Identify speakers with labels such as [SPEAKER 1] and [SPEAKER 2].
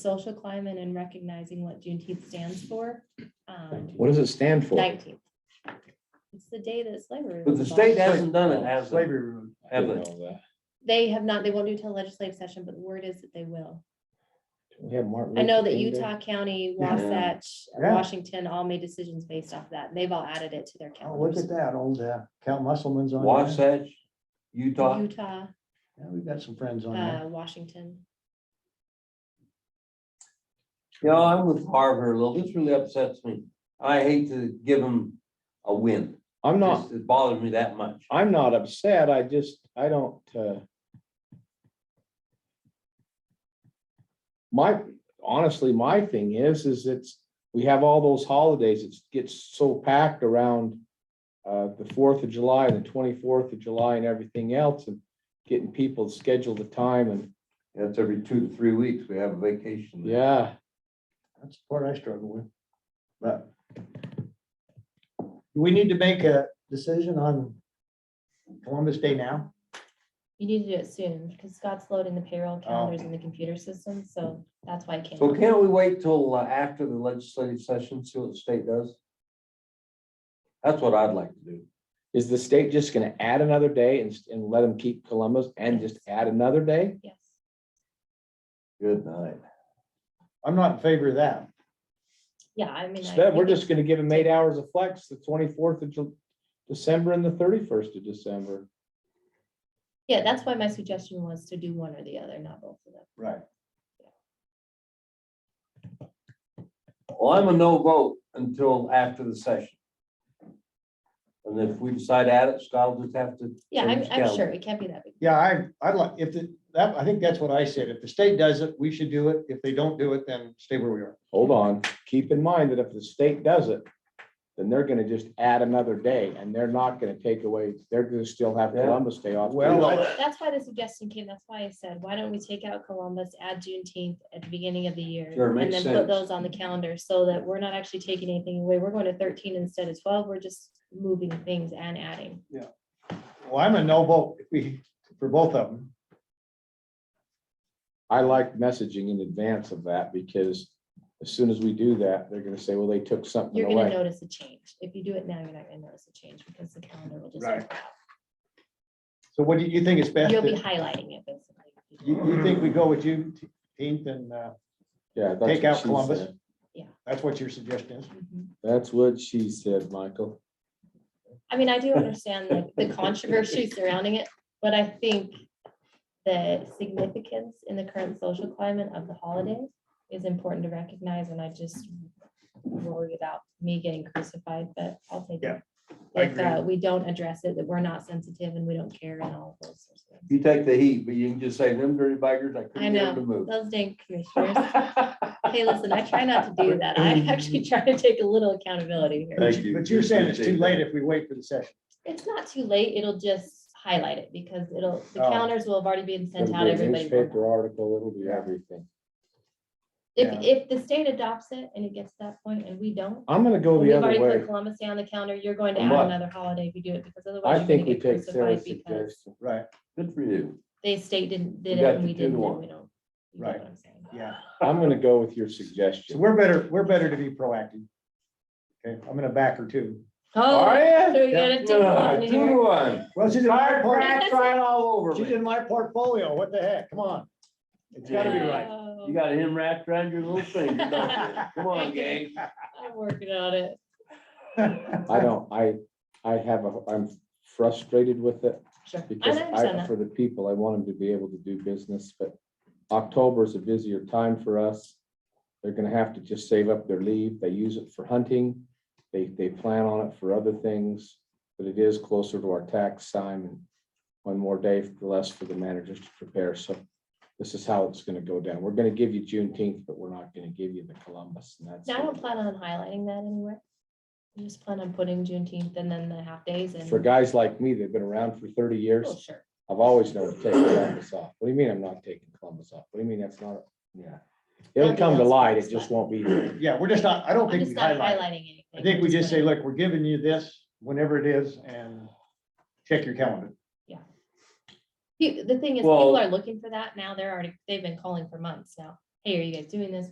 [SPEAKER 1] social climate and recognizing what Juneteenth stands for. Um,
[SPEAKER 2] What does it stand for?
[SPEAKER 1] nineteenth. It's the day that slavery.
[SPEAKER 3] But the
[SPEAKER 1] was
[SPEAKER 3] state
[SPEAKER 1] abolished.
[SPEAKER 3] hasn't done it, has they?
[SPEAKER 4] Slavery room.
[SPEAKER 3] Have they?
[SPEAKER 1] They have not, they won't do it till legislative session, but the word is that they will.
[SPEAKER 2] We have Martin
[SPEAKER 1] I know
[SPEAKER 2] Luther
[SPEAKER 1] that
[SPEAKER 2] King Day.
[SPEAKER 1] Utah County,
[SPEAKER 4] Yeah.
[SPEAKER 1] Wasatch,
[SPEAKER 4] Yeah.
[SPEAKER 1] Washington all made decisions based off that. and They've all added it to their
[SPEAKER 4] Oh, look
[SPEAKER 1] calendars.
[SPEAKER 4] at that, old uh, Count Musselman's on. there.
[SPEAKER 3] Wasatch, Utah,
[SPEAKER 1] Utah,
[SPEAKER 4] Yeah, We've got some friends on
[SPEAKER 1] uh,
[SPEAKER 4] there.
[SPEAKER 1] Washington.
[SPEAKER 3] you know, I'm with Harvard a little, this really upsets me. I hate to give them a win,
[SPEAKER 2] I'm not,
[SPEAKER 3] Just- it bothers me that much.
[SPEAKER 2] I'm not upset. I just, I don't, uh. My, honestly, my thing is, is it's, we have all those holidays, it gets so packed around. Uh, the Fourth of July, the twenty-fourth of July and everything else and getting people to schedule the time and,
[SPEAKER 3] That's every two to three weeks, we have a vacation.
[SPEAKER 2] yeah.
[SPEAKER 4] That's the part I struggle with. But do we need to make a decision on Columbus Day now?
[SPEAKER 1] You need to do it soon because Scott's loading the payroll calendars in the computer system, so that's why I can't.
[SPEAKER 3] So can't we wait till uh, after the legislative session, see what the state does? That's what I'd like to do.
[SPEAKER 2] Is the state just gonna add another day and, and let them keep Columbus and just add another day?
[SPEAKER 1] Yes.
[SPEAKER 3] Good night.
[SPEAKER 4] I'm not in favor of that.
[SPEAKER 1] Yeah, I mean. I
[SPEAKER 2] Instead, we're
[SPEAKER 1] think
[SPEAKER 2] just gonna give them eight hours of flex, the twenty-fourth of Ju- December and the thirty-first of December.
[SPEAKER 1] Yeah, that's why my suggestion was to do one or the other, not both of them.
[SPEAKER 4] Right.
[SPEAKER 3] Well, I'm a no vote until after the session. And if we decide at it, Scott will just have to.
[SPEAKER 1] Yeah, I'm,
[SPEAKER 3] change
[SPEAKER 1] I'm sure
[SPEAKER 3] calendar.
[SPEAKER 1] it can't be that big.
[SPEAKER 4] Yeah, I, I'd like, if the, that, I think that's what I said. If the state does it, we should do it. If they don't do it, then stay where we are.
[SPEAKER 2] Hold on, keep in mind that if the state does it, then they're gonna just add another day and they're not gonna take away, they're gonna still have
[SPEAKER 3] Yeah.
[SPEAKER 2] Columbus Day off.
[SPEAKER 4] Well, I-
[SPEAKER 1] That's why the suggestion came, that's why I said, why don't we take out Columbus, add Juneteenth at the beginning of the year?
[SPEAKER 3] Sure, makes
[SPEAKER 1] And then put
[SPEAKER 3] sense.
[SPEAKER 1] those on the calendar so that we're not actually taking anything away. We're going to thirteen instead of twelve. We're just moving things and adding.
[SPEAKER 4] Well, I'm a no vote if we, for both of them.
[SPEAKER 2] I like messaging in advance of that because as soon as we do that, they're gonna say, well, they took something
[SPEAKER 1] You're gonna
[SPEAKER 2] away.
[SPEAKER 1] notice a change. If you do it now, you're not gonna notice a change because the calendar will just.
[SPEAKER 4] Right. So what do you think is best?
[SPEAKER 1] You'll be
[SPEAKER 4] You,
[SPEAKER 1] highlighting it basically.
[SPEAKER 4] you think we go with Juneteenth and uh,
[SPEAKER 2] Yeah, that's
[SPEAKER 4] Take
[SPEAKER 2] what
[SPEAKER 4] out
[SPEAKER 2] she
[SPEAKER 4] Columbus.
[SPEAKER 2] said.
[SPEAKER 4] that's what your suggestion is?
[SPEAKER 1] Mhm.
[SPEAKER 2] That's what she said, Michael.
[SPEAKER 1] I mean, I do understand like the controversy surrounding it, but I think the significance in the current social climate of the holiday is important to recognize, and I just worry about me getting crucified, but I'll take
[SPEAKER 4] Yeah,
[SPEAKER 1] it.
[SPEAKER 4] I
[SPEAKER 1] If uh, we don't address it, that we're not sensitive and we don't care and all of those sorts of things.
[SPEAKER 3] You take the heat, but you can just say them dirty buggers, I
[SPEAKER 1] I
[SPEAKER 3] couldn't get them to
[SPEAKER 1] know,
[SPEAKER 3] move.
[SPEAKER 1] those dang commissioners. Hey, listen, I try not to do that. I actually try to take a little accountability here.
[SPEAKER 4] But you- but you're saying it's too late if we wait for the session.
[SPEAKER 1] It's not too late, it'll just highlight it because it'll, the
[SPEAKER 4] Oh.
[SPEAKER 1] calendars will have already been sent
[SPEAKER 2] It'll
[SPEAKER 1] out,
[SPEAKER 2] be a
[SPEAKER 1] everybody. will
[SPEAKER 2] Newspaper
[SPEAKER 1] know.
[SPEAKER 2] article, it'll be everything.
[SPEAKER 1] If, if the state adopts it and it gets to that point and we don't,
[SPEAKER 2] I'm gonna go
[SPEAKER 1] we've
[SPEAKER 2] the other
[SPEAKER 1] already
[SPEAKER 2] way.
[SPEAKER 1] put Columbus Day on the calendar, you're going to
[SPEAKER 3] A
[SPEAKER 1] add
[SPEAKER 3] month.
[SPEAKER 1] another holiday if you do it, because
[SPEAKER 2] I
[SPEAKER 1] otherwise you're
[SPEAKER 2] think
[SPEAKER 1] gonna
[SPEAKER 2] we
[SPEAKER 1] get
[SPEAKER 2] take Sarah's
[SPEAKER 1] crucified because
[SPEAKER 2] suggestion.
[SPEAKER 4] Right,
[SPEAKER 3] Good for you.
[SPEAKER 1] the state didn't, did
[SPEAKER 3] We got
[SPEAKER 1] it and
[SPEAKER 3] to
[SPEAKER 1] we
[SPEAKER 3] do
[SPEAKER 1] didn't,
[SPEAKER 3] one.
[SPEAKER 1] and we don't. you know
[SPEAKER 4] Right.
[SPEAKER 1] what I'm saying.
[SPEAKER 4] yeah.
[SPEAKER 2] I'm gonna go with your
[SPEAKER 4] So
[SPEAKER 2] suggestion.
[SPEAKER 4] we're better, we're better to be proactive. Okay, I'm gonna back her too.
[SPEAKER 1] Oh,
[SPEAKER 3] Alright.
[SPEAKER 1] so you gotta do one here.
[SPEAKER 3] Two one.
[SPEAKER 4] Well, she's in my
[SPEAKER 3] Fire
[SPEAKER 4] portfolio.
[SPEAKER 3] crack, try it all over
[SPEAKER 4] She's
[SPEAKER 3] me.
[SPEAKER 4] in my portfolio. What the heck? Come on. It's gotta be right.
[SPEAKER 1] Oh,
[SPEAKER 3] You got him wrapped around your little finger. don't you? Come on, gang.
[SPEAKER 1] I'm working on it.
[SPEAKER 2] I don't, I, I have a, I'm frustrated with it
[SPEAKER 1] Sure. I
[SPEAKER 2] because
[SPEAKER 1] understand
[SPEAKER 2] I,
[SPEAKER 1] that.
[SPEAKER 2] for the people, I want them to be able to do business, but October is a busier time for us. They're gonna have to just save up their leave. They use it for hunting. They, they plan on it for other things, but it is closer to our tax time and one more day for less for the managers to prepare. So this is how it's gonna go down. We're gonna give you Juneteenth, but we're not gonna give you the Columbus and that's.
[SPEAKER 1] No, I
[SPEAKER 2] it.
[SPEAKER 1] don't plan on highlighting that anywhere. I just plan on putting Juneteenth and then the half days and.
[SPEAKER 2] For guys like me, they've been around for thirty
[SPEAKER 1] Oh,
[SPEAKER 2] years.
[SPEAKER 1] sure.
[SPEAKER 2] I've always known to take Columbus off. What do you mean I'm not taking Columbus off? What do you mean that's not, yeah. It'll
[SPEAKER 1] Nothing
[SPEAKER 2] come to
[SPEAKER 1] else
[SPEAKER 2] light.
[SPEAKER 1] comes
[SPEAKER 2] It just
[SPEAKER 1] by.
[SPEAKER 2] won't be there.
[SPEAKER 4] Yeah, we're just not, I don't
[SPEAKER 1] I'm
[SPEAKER 4] think
[SPEAKER 1] just
[SPEAKER 4] we
[SPEAKER 1] not
[SPEAKER 4] highlight.
[SPEAKER 1] highlighting anything.
[SPEAKER 4] I think we
[SPEAKER 1] I'm
[SPEAKER 4] just say,
[SPEAKER 1] putting-
[SPEAKER 4] look, we're giving you this whenever it is and check your calendar.
[SPEAKER 1] Pe- The thing is,
[SPEAKER 3] Well-
[SPEAKER 1] people are looking for that now. They're already, they've been calling for months now. hey, are you guys doing this?